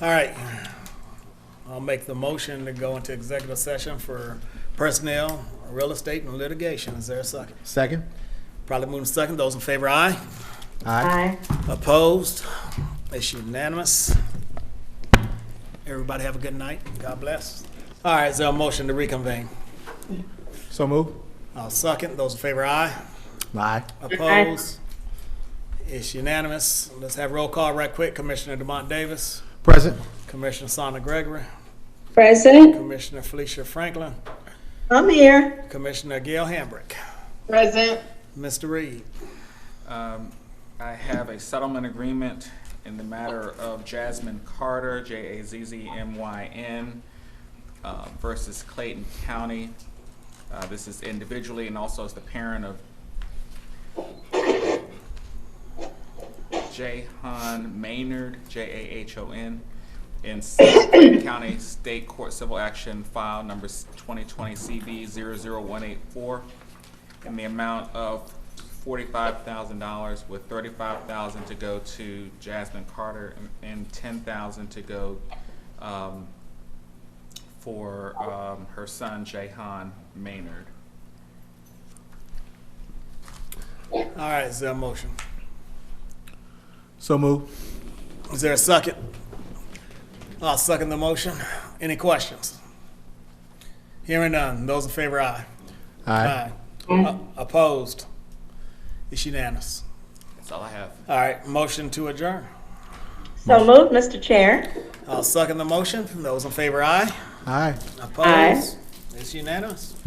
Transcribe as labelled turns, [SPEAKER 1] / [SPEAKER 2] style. [SPEAKER 1] All right. I'll make the motion to go into executive session for personnel, real estate, and litigation. Is there a second?
[SPEAKER 2] Second?
[SPEAKER 1] Probably moving second. Those in favor, aye.
[SPEAKER 2] Aye.
[SPEAKER 3] Aye.
[SPEAKER 1] Opposed? It's unanimous. Everybody have a good night. God bless. All right, is there a motion to reconvene?
[SPEAKER 2] So move?
[SPEAKER 1] I'll second. Those in favor, aye.
[SPEAKER 2] Aye.
[SPEAKER 1] Opposed? It's unanimous. Let's have roll call right quick. Commissioner Demont Davis,
[SPEAKER 2] Present?
[SPEAKER 1] Commissioner Sonia Gregory,
[SPEAKER 3] Present?
[SPEAKER 1] Commissioner Felicia Franklin,
[SPEAKER 3] I'm here.
[SPEAKER 1] Commissioner Gail Hambrick,
[SPEAKER 3] Present.
[SPEAKER 1] Mr. Reed.
[SPEAKER 4] Um, I have a settlement agreement in the matter of Jasmine Carter, J-A-Z-Z-M-Y-N, uh, versus Clayton County. Uh, This is individually and also as the parent of Jahan Maynard, J-A-H-O-N, in Clayton County State Court Civil Action File Number 2020 CV 00184 in the amount of $45,000 with $35,000 to go to Jasmine Carter and- and $10,000 to go um, for um, her son Jahan Maynard.
[SPEAKER 1] All right, is there a motion?
[SPEAKER 2] So move?
[SPEAKER 1] Is there a second? I'll second the motion. Any questions? Hearing none. Those in favor, aye.
[SPEAKER 2] Aye.
[SPEAKER 1] O- Opposed? It's unanimous.
[SPEAKER 4] That's all I have.
[SPEAKER 1] All right, motion to adjourn.
[SPEAKER 3] So moved, Mr. Chair.
[SPEAKER 1] I'll second the motion. Those in favor, aye.
[SPEAKER 2] Aye.
[SPEAKER 1] Opposed? It's unanimous.